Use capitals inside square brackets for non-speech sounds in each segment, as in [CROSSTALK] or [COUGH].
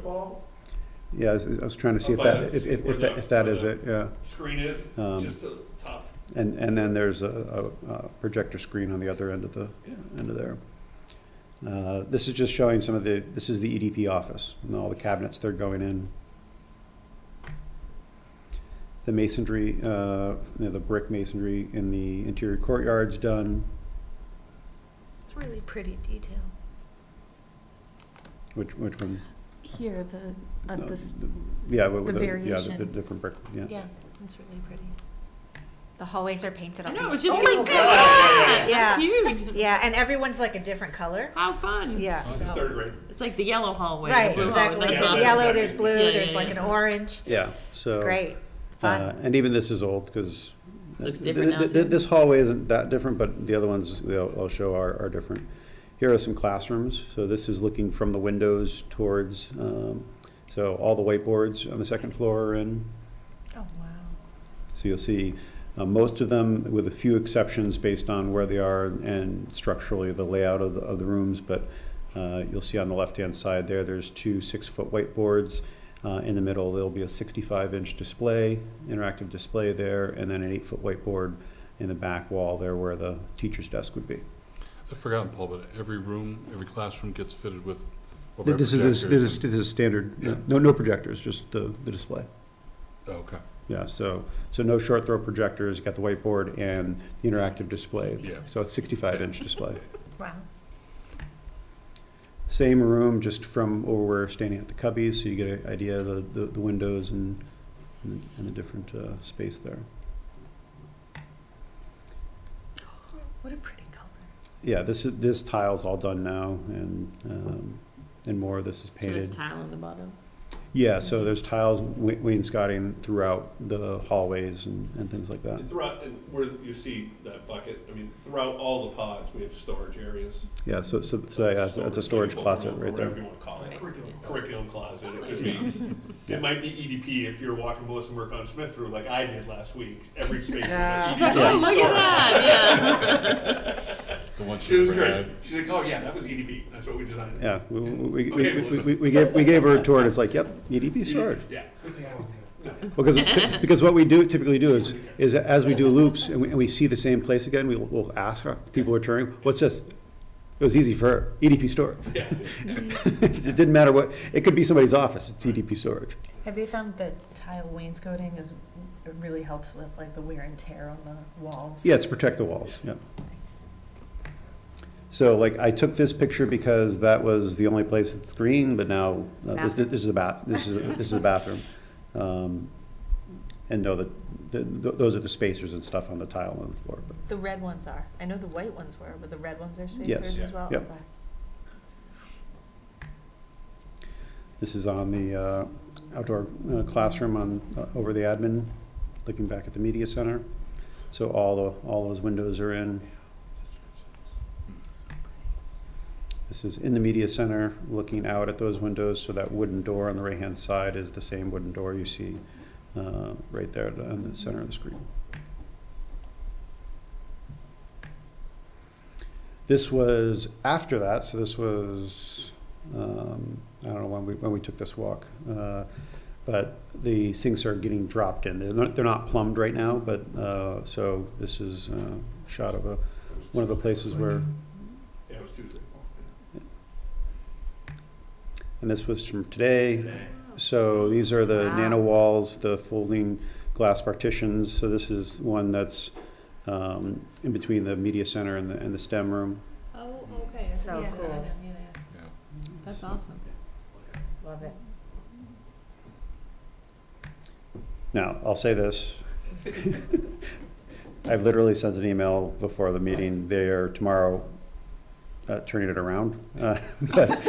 wall, Yeah, I was- I was trying to see if that, if, if, if that- if that is it, yeah. screen is, Um, just the top. And, and then there's a, a a projector screen on the other end of the, Yeah. end of there. Uh, This is just showing some of the, this is the EDP office and all the cabinets they're going in. The masonry, uh, you know, the brick masonry in the interior courtyard's done, It's really pretty detail. which, which one? Here, the, uh, at this, the- Yeah, with the with the, yeah, the- the variation. different brick, yeah. yeah, it's really pretty. The hallways are painted I on know, I was these. just Oh gonna my say God. that. Yeah. That's huge. Yeah, and everyone's like a different color. How fun. Yeah. Oh, this is third grade. It's like the yellow hallway. the Right, blue exactly. Hallway. Yeah. That's There's awesome. yellow, there's blue, Yeah, yeah, there's like yeah. an orange. Yeah, so. It's great. Uh, Fun. And even this is old, because. Looks different now, too. This hallway isn't that different, but the other ones they will I'll show are, are different. Here are some classrooms, so this is looking from the windows towards, um, so all the whiteboards on the second floor are in. Oh, wow. So you'll see, uh, most of them, with a few exceptions based on where they are and structurally the layout of the, of the rooms, but, uh, you'll see on the left-hand side there, there's two six-foot whiteboards. Uh, in the middle, there'll be a sixty-five inch display, interactive display there, and then an eight-foot whiteboard in the back wall there where the teacher's desk would be. I've forgotten, Paul, but every room, every classroom gets fitted with overhead This is, this projectors is, this is Yeah. standard, no, no projectors, just the, the display. and- Oh, Okay, Yeah, so, so no short throw projectors, you got the whiteboard and the interactive display. Yeah. So it's sixty-five inch [LAUGHS] display. Wow. Same room, just from over where we're standing at the cubbies, so you get an idea of the, the, the windows and, and the- and the different, uh, space there. What a pretty color. Yeah, this is, this tile's all done now and, um, and more of this is So it's painted. tile on the bottom. Yeah, so there's tiles, wa- wainscoting throughout the hallways and, and things like that. And throughout, and where you see that bucket, I mean, throughout all the pods, we have storage areas. Yeah, so, so, so, yeah, it's- it's a storage table closet room, or right there. Whatever you wanna call it. Curriculum. Curriculum closet, it could be, it might be EDP if you're watching Melissa work on Smith through like I did last week. Every space is E Yeah. a She's like, storage oh, look at [LAUGHS] that. the one She she was had. great. She's like, oh, yeah, that was EDP. That's what we designed. Yeah, we, we, Okay, we- we, Melissa. we- we gave, we gave her a tour, and it's like, yep, EDP storage. Yeah. Because, because what we do, typically do is, is as we do loops, and we, and we see the same place again, we will, we'll ask our people returning, what's this? It was easy for E her, EDP storage. Yeah. [LAUGHS] It didn't matter what, it could be somebody's office, it's EDP storage. Have they found that tile wainscoting is, it really helps with like the wear and tear on the walls? Yeah, it's protect the walls, yeah. So like, I took this picture because that was the only place that's green, but now, uh, this, Bathroom. this is a bath, this is, this is a bathroom. Um, And no, the, the, th- those are the spacers and stuff on the tile on the floor, but, The red ones are. I know the white ones were, but the red ones Mm. are Yes. spacers as well? Yeah. Okay. This is on the uh, outdoor uh, classroom on, uh, over the admin, looking back at the media center. So all the, all those windows are in. This is in the media center, looking out at those windows, so that wooden door on the right-hand side is the same wooden door you see uh, right there on the center of the screen. This was after that, so this was um, I don't know when we, when we took this walk. Uh, but the sinks are getting dropped in. They're not, they're not plumbed right now, but, uh, so this is uh, a shot of a, one of the places where, Yeah, it was Tuesday. and this was from today. So these are the Wow. nano walls, the folding glass partitions. So this is one that's, um, in between the media center and the, and the STEM room. Oh, okay. So Yeah, cool. yeah, yeah, yeah. Yeah. That's awesome. Love it. Now, I'll say this. [LAUGHS] I've literally sent an email before the meeting there tomorrow, uh, turning it around. Uh, [LAUGHS] but-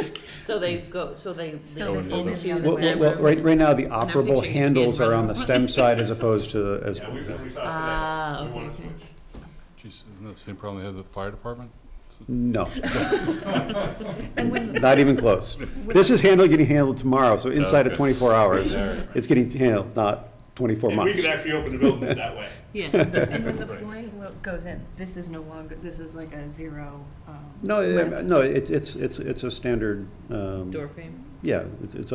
So they go, so they So lead they fold into it the Well, well, side well, right, room. right now, the I'm operable picturing a kid handles are on running the around. STEM side as opposed [LAUGHS] to, as, Yeah, we, we saw it today. Ah, We wanna okay, okay. switch. Geez, isn't that the same problem they had at the fire department? no. [LAUGHS] Not even close. This is handled, getting handled tomorrow, so inside of Okay. twenty-four hours, Alright. it's getting handled, not twenty-four And we months. could actually open the building that [LAUGHS] way. Yeah. And when the flooring lo- goes in, this is no longer, this is like a zero, um. No, lip. it- no, it's, it's, it's, it's a standard, um, Door frame. yeah, it's- it's